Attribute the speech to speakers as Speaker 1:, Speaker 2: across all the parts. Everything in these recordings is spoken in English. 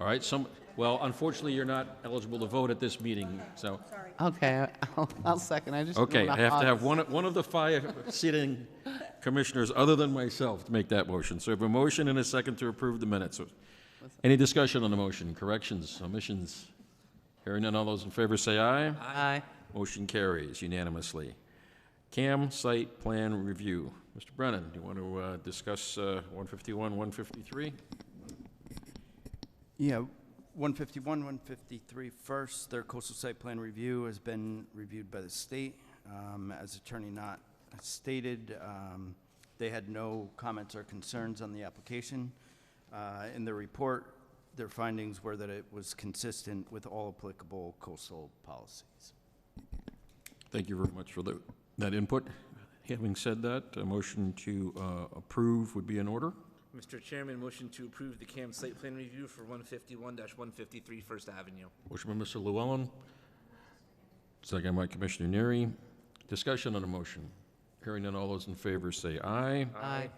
Speaker 1: All right, some, well, unfortunately, you're not eligible to vote at this meeting, so.
Speaker 2: Okay, I'll, I'll second, I just. didn't
Speaker 1: Okay, I
Speaker 2: wanna
Speaker 1: have to
Speaker 2: hog-
Speaker 1: have one, one of the five sitting commissioners, other than myself, to make that motion. So I have a motion and a second to approve the minutes. Any discussion on the motion, corrections, omissions? Hearing none, all those in favor say aye.
Speaker 2: Aye.
Speaker 1: Motion carries unanimously. CAM Site Plan Review. Mr. Brennan, do you want to uh, discuss uh, 151, 153?
Speaker 3: Yeah, 151, 153 first, their coastal site plan review has been reviewed by the state. Um, As Attorney Knott stated, um, they had no comments or concerns on the application. Uh, In the report, their findings were that it was consistent with all applicable coastal policies.
Speaker 1: Thank you very much for the- that input. Having said that, a motion to uh, approve would be in order.
Speaker 4: Mr. Chairman, motion to approve the CAM site plan review for 151-153 First Avenue.
Speaker 1: Motion by Mr. Llewellyn, second by Commissioner Neary. Discussion on the motion. Hearing none, all those in favor say aye.
Speaker 2: Aye.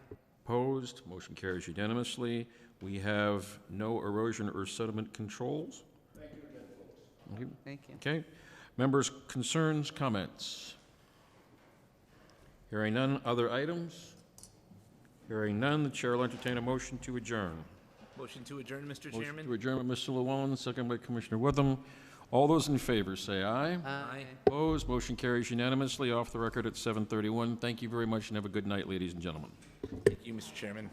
Speaker 1: Opposed, motion carries unanimously. We have no erosion or sediment controls. Thank you again,
Speaker 2: Thank you.
Speaker 1: Okay. Members' concerns, comments? Hearing none, other items? Hearing none, the chair will entertain a motion to adjourn.
Speaker 4: Motion to adjourn, Mr.
Speaker 1: Motion to
Speaker 4: Chairman?
Speaker 1: adjourn by Mr. Llewellyn, second by Commissioner Witham. All those in favor, say aye.
Speaker 4: Aye.
Speaker 1: Opposed, motion carries unanimously, off the record at 7:31. Thank you very much, and have a good night, ladies and gentlemen.
Speaker 4: Thank you, Mr. Chairman.